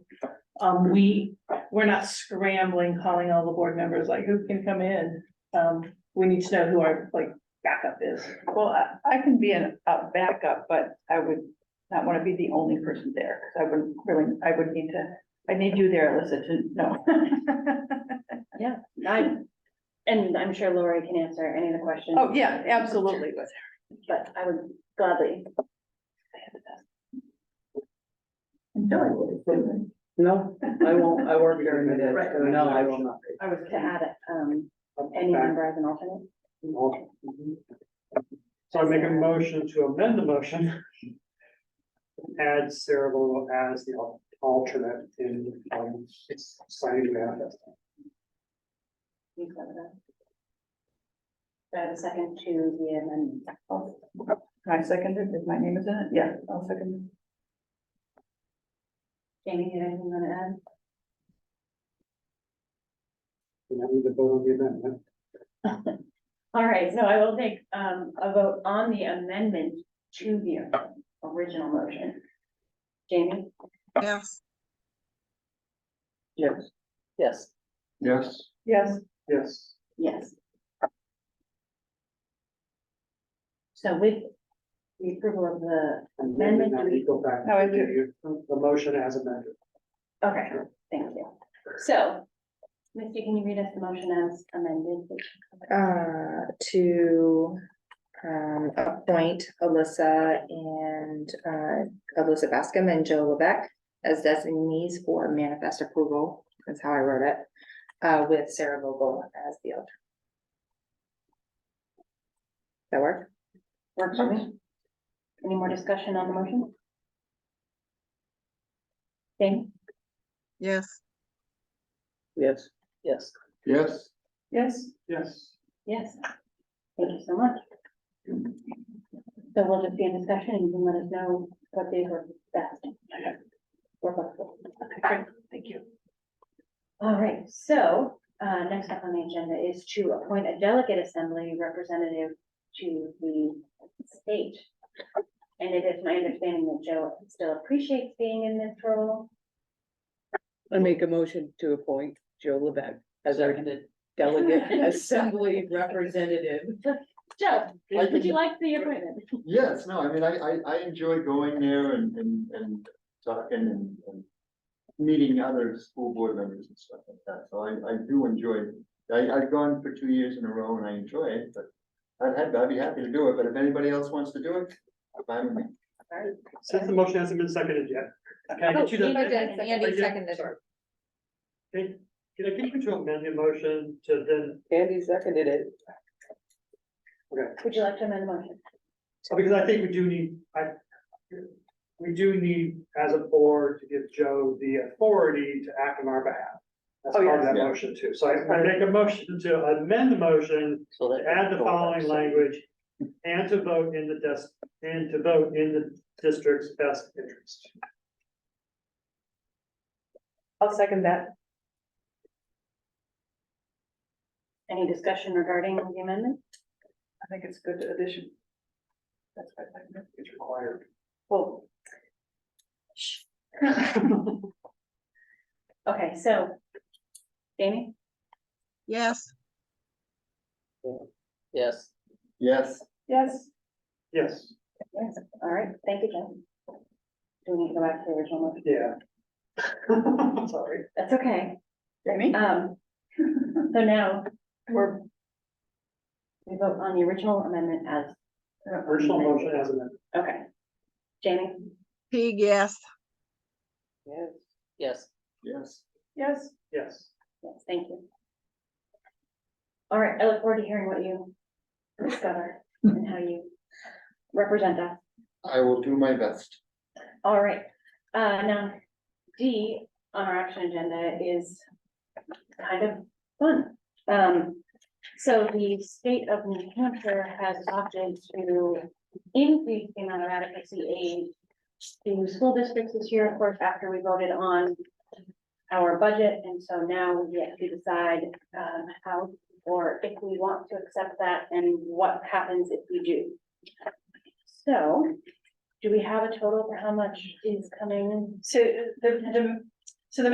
Um, we, we're not scrambling, calling all the board members, like, who can come in? Um, we need to know who our, like, backup is. Well, I, I can be an- a backup, but I would not want to be the only person there, because I wouldn't really, I would need to, I need you there, Alyssa, to know. I, and I'm sure Lori can answer any of the questions, Oh, yeah, absolutely, but. but I would gladly. No, I won't, I work during the day, Right. so no, I will not. I was To add, um, any member as an alternate. So I make a motion to amend the motion. Add Sarah Vogel as the al- alternate in, um, signing the manifest. You can have that. Do I have a second to the amendment? I seconded, if my name is in it, yeah, I'll second. Jamie, you have anything you want to add? And I need to vote on the amendment. All right, so I will take, um, a vote on the amendment to the original motion. Jamie, yes, Yes. Yes. Yes, Yes, Yes, yes. So with the approval of the, and then we now Amendment. need to go back. No, I to The the motion as amended. okay, thank you. So, Misty, can you read us the motion as amended? please? uh, to, um, appoint Alyssa and, uh, Alyssa Bascom and Joe Lebec as designees for manifest approval, that's how I wrote it, uh, with Sarah Vogel as the alternate. That work? Works for me. Any more discussion on the motion? Jamie? Yes. Yes. yes. yes, Yes. Yes. Yes. Thank you so much. So we'll just be in discussion and you can let us know what days work best. We're flexible. Great, thank you. All right, so, uh, next up on the agenda is to appoint a delegate assembly representative to the state. And it is my understanding that Joe still appreciates being in this role. I make a motion to appoint Joe Levesque as our delegate assembly representative. Joe, would you like the appointment? yes, no, I mean, I, I, I enjoy going there and, and, and talking and, and. Meeting other school board members and stuff like that, so I, I do enjoy, it. I, I've gone for two years in a row and I enjoy it, but. I'd, have- I'd be happy to do it, but if anybody else wants to do it, fine with me. Since the motion hasn't been seconded yet, can I get you to? Oh, Andy did. Andy seconded. Sorry. Can can I get you to amend your motion to then, Andy seconded it. Would you like to amend the motion? oh, because I think we do need, I. We do need, as a board, to give Joe the authority to act on our behalf. That's Oh, part of yes. that Yeah. motion too, so I I make a motion to amend the motion So to add the Oh, following language. And to vote in the desk, and to vote in the district's best interest. I'll second that. Any discussion regarding the amendment? I think it's a good addition. That's what I think. It's required. Well, Okay, so. Jamie, yes. Yes. Yes. yes. Yes, yes, all right, thank you, Jen. Do we need to go back to the original motion? yeah. Sorry. That's okay, Jamie? um, so now we're. We vote on the original amendment as, Original motion as amended. okay. Jamie, P. yes. Yes. Yes. Yes. Yes. Yes. yes, thank you. All right, I look forward to hearing what you discover and how you represent us. I will do my best. All right, uh, now, D on our action agenda is kind of fun. Um, so the state of New Hampshire has opted to increase the amount of adequacy aid to school districts this year, of course, after we voted on our budget, and so now we have to decide, um, how or if we want to accept that and what happens if we do. So, do we have a total for how much is coming? So the, the